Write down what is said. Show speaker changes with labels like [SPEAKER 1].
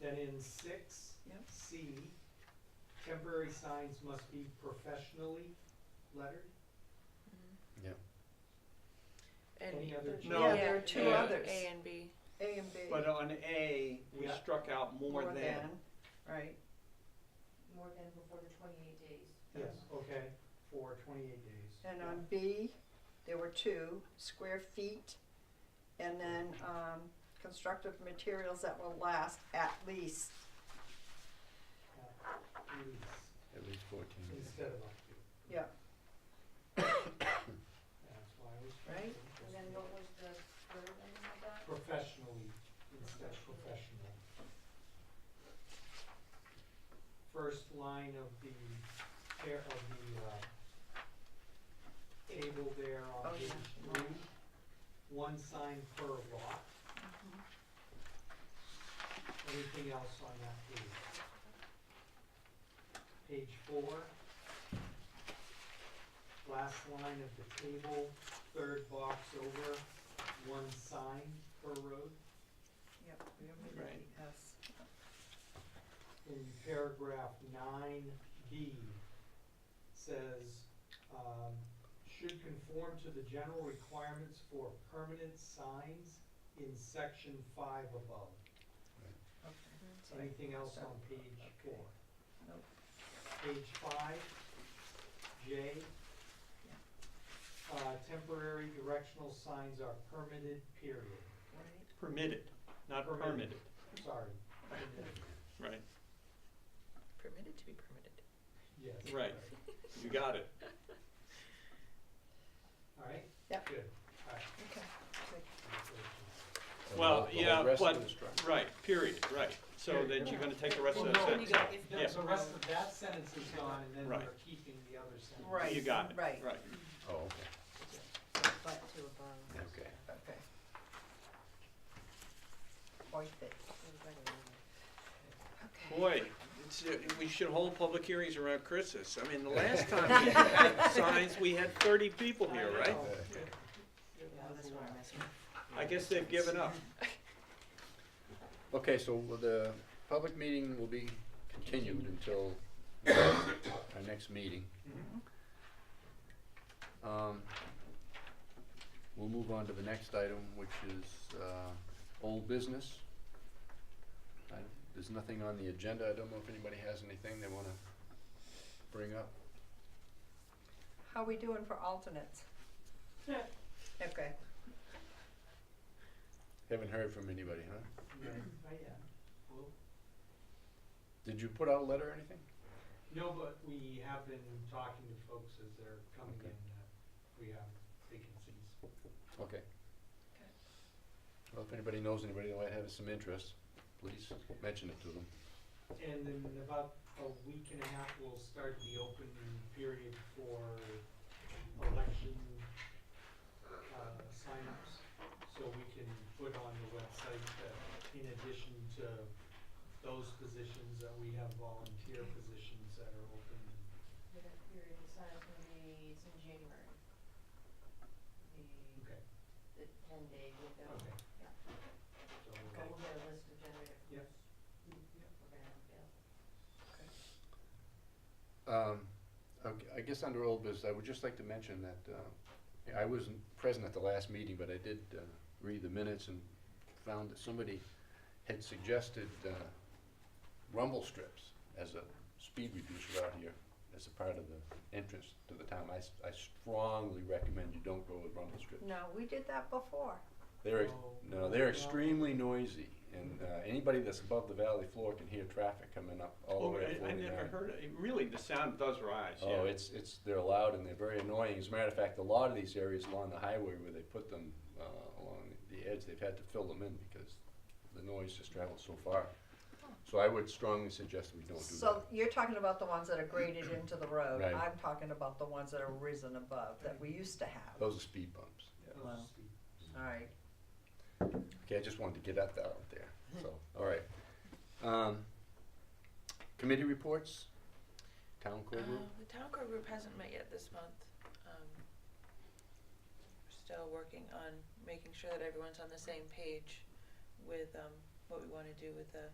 [SPEAKER 1] Then in six,
[SPEAKER 2] Yep.
[SPEAKER 1] C, temporary signs must be professionally lettered.
[SPEAKER 3] And
[SPEAKER 1] Any other
[SPEAKER 3] yeah,
[SPEAKER 4] No.
[SPEAKER 2] there are two
[SPEAKER 3] A-
[SPEAKER 2] others.
[SPEAKER 3] A and B.
[SPEAKER 2] A and B,
[SPEAKER 4] But on A, we
[SPEAKER 1] Yeah.
[SPEAKER 4] struck out more
[SPEAKER 2] More
[SPEAKER 4] than.
[SPEAKER 2] than. right?
[SPEAKER 5] more than before the twenty-eight days.
[SPEAKER 1] Yes, okay, for twenty-eight days.
[SPEAKER 2] And
[SPEAKER 1] Yeah.
[SPEAKER 2] on B, there were two, square feet, and then, um, constructive materials that will last at least.
[SPEAKER 1] At least,
[SPEAKER 6] At least fourteen.
[SPEAKER 1] instead of up to.
[SPEAKER 2] Yeah,
[SPEAKER 1] That's why I was.
[SPEAKER 2] Right.
[SPEAKER 5] And then what was the third ending of that?
[SPEAKER 1] Professionally, instead of professional. First line of the, pair of the, uh, table there on
[SPEAKER 2] Oh,
[SPEAKER 1] page
[SPEAKER 2] yeah.
[SPEAKER 1] three, one sign per lot.
[SPEAKER 2] Mm-hmm.
[SPEAKER 1] Anything else on that page? Page four. Last line of the table, third box over, one sign per road.
[SPEAKER 2] yep, we don't need
[SPEAKER 4] Right.
[SPEAKER 2] the S.
[SPEAKER 1] In paragraph nine B says, um, should conform to the general requirements for permanent signs in section five above.
[SPEAKER 2] Okay.
[SPEAKER 1] Anything else on page
[SPEAKER 2] Okay.
[SPEAKER 1] four?
[SPEAKER 2] Nope.
[SPEAKER 1] Page five, J. Uh, temporary directional signs are permitted, period,
[SPEAKER 2] Right.
[SPEAKER 4] Permitted, not
[SPEAKER 1] Permitted.
[SPEAKER 4] permitted,
[SPEAKER 1] sorry,
[SPEAKER 4] right,
[SPEAKER 3] Permitted to be permitted.
[SPEAKER 1] yes.
[SPEAKER 4] Right. you got it.
[SPEAKER 1] Alright?
[SPEAKER 2] Yep.
[SPEAKER 1] Good, alright.
[SPEAKER 2] Okay.
[SPEAKER 4] Well, yeah,
[SPEAKER 6] The rest
[SPEAKER 4] but-
[SPEAKER 6] of the structure.
[SPEAKER 4] Right, period, right, so
[SPEAKER 1] Period.
[SPEAKER 4] then you're gonna take the rest of
[SPEAKER 1] Well,
[SPEAKER 4] that
[SPEAKER 1] no,
[SPEAKER 4] sentence,
[SPEAKER 3] go, if
[SPEAKER 1] No,
[SPEAKER 4] Yeah.
[SPEAKER 1] the rest of that sentence is gone, and then
[SPEAKER 4] Right.
[SPEAKER 1] we're keeping the other sentence.
[SPEAKER 2] Right.
[SPEAKER 4] you got it, right.
[SPEAKER 2] Right.
[SPEAKER 6] Oh, okay,
[SPEAKER 3] but to above.
[SPEAKER 6] okay.
[SPEAKER 2] Okay. Point it.
[SPEAKER 4] Boy, it's, uh, we should hold public hearings around Christmas, I mean, the last time we had signs, we had thirty people here,
[SPEAKER 1] I
[SPEAKER 4] right?
[SPEAKER 1] know.
[SPEAKER 4] Yeah.
[SPEAKER 1] It was a lot.
[SPEAKER 4] I guess they've given up,
[SPEAKER 6] Okay, so will the public meeting will be continued until our next meeting.
[SPEAKER 4] Mm-hmm.
[SPEAKER 6] Um, We'll move on to the next item, which is uh, old business. I- There's nothing on the agenda. I don't know if anybody has anything they want to bring up.
[SPEAKER 2] How we doing for alternates? Okay.
[SPEAKER 6] Haven't heard from anybody, huh?
[SPEAKER 1] Yeah. Oh, yeah. Well,
[SPEAKER 6] Did you put out a letter or anything?
[SPEAKER 1] No, but we have been talking to folks as they're coming
[SPEAKER 6] Okay.
[SPEAKER 1] in, uh, we have vacancies.
[SPEAKER 6] Okay. Well, if anybody knows anybody that might have some interest, please mention it to them.
[SPEAKER 1] And in about a week and a half, we'll start the open period for election uh, signups. So we can put on the website that in addition to those positions, that we have volunteer positions that are open.
[SPEAKER 5] For that period of time, it's gonna be, it's in January. The,
[SPEAKER 1] Okay,
[SPEAKER 5] the ten day window.
[SPEAKER 1] okay.
[SPEAKER 5] Yeah.
[SPEAKER 1] So
[SPEAKER 5] But
[SPEAKER 1] we'll-
[SPEAKER 5] We'll get a list of generated.
[SPEAKER 1] Yep.
[SPEAKER 5] Yep. We're gonna have available.
[SPEAKER 6] Um, okay, I guess under old business, I would just like to mention that, uh, I wasn't present at the last meeting, but I did, uh, read the minutes and found that somebody had suggested, uh, rumble strips as a speed reducer out here, as a part of the entrance to the town. I, s- I strongly recommend you don't go with rumble strips.
[SPEAKER 2] No, we did that before.
[SPEAKER 6] They're, ex-
[SPEAKER 1] Oh,
[SPEAKER 6] no, they're
[SPEAKER 1] yeah.
[SPEAKER 6] extremely noisy, and, uh, anybody that's above the valley floor can hear traffic coming up all the
[SPEAKER 4] oh,
[SPEAKER 6] way to
[SPEAKER 4] I, I
[SPEAKER 6] forty-nine.
[SPEAKER 4] never heard, it. really, the sound does rise, yeah.
[SPEAKER 6] Oh, it's, it's, they're loud and they're very annoying. As a matter of fact, a lot of these areas along the highway where they put them, uh, along the edge, they've had to fill them in because the noise just travels so far. So I would strongly suggest we don't do
[SPEAKER 2] So
[SPEAKER 6] that.
[SPEAKER 2] you're talking about the ones that are graded into the road.
[SPEAKER 6] Right.
[SPEAKER 2] I'm talking about the ones that are risen above that we used to have.
[SPEAKER 6] Those are speed bumps.
[SPEAKER 1] those
[SPEAKER 2] Wow.
[SPEAKER 1] speed.
[SPEAKER 2] All right.
[SPEAKER 6] Okay, I just wanted to get that out there, so, all right. Um, committee reports, town core group,
[SPEAKER 3] Uh, The town core group hasn't met yet this month. Um, we're Still working on making sure that everyone's on the same page with um, what we want to do with the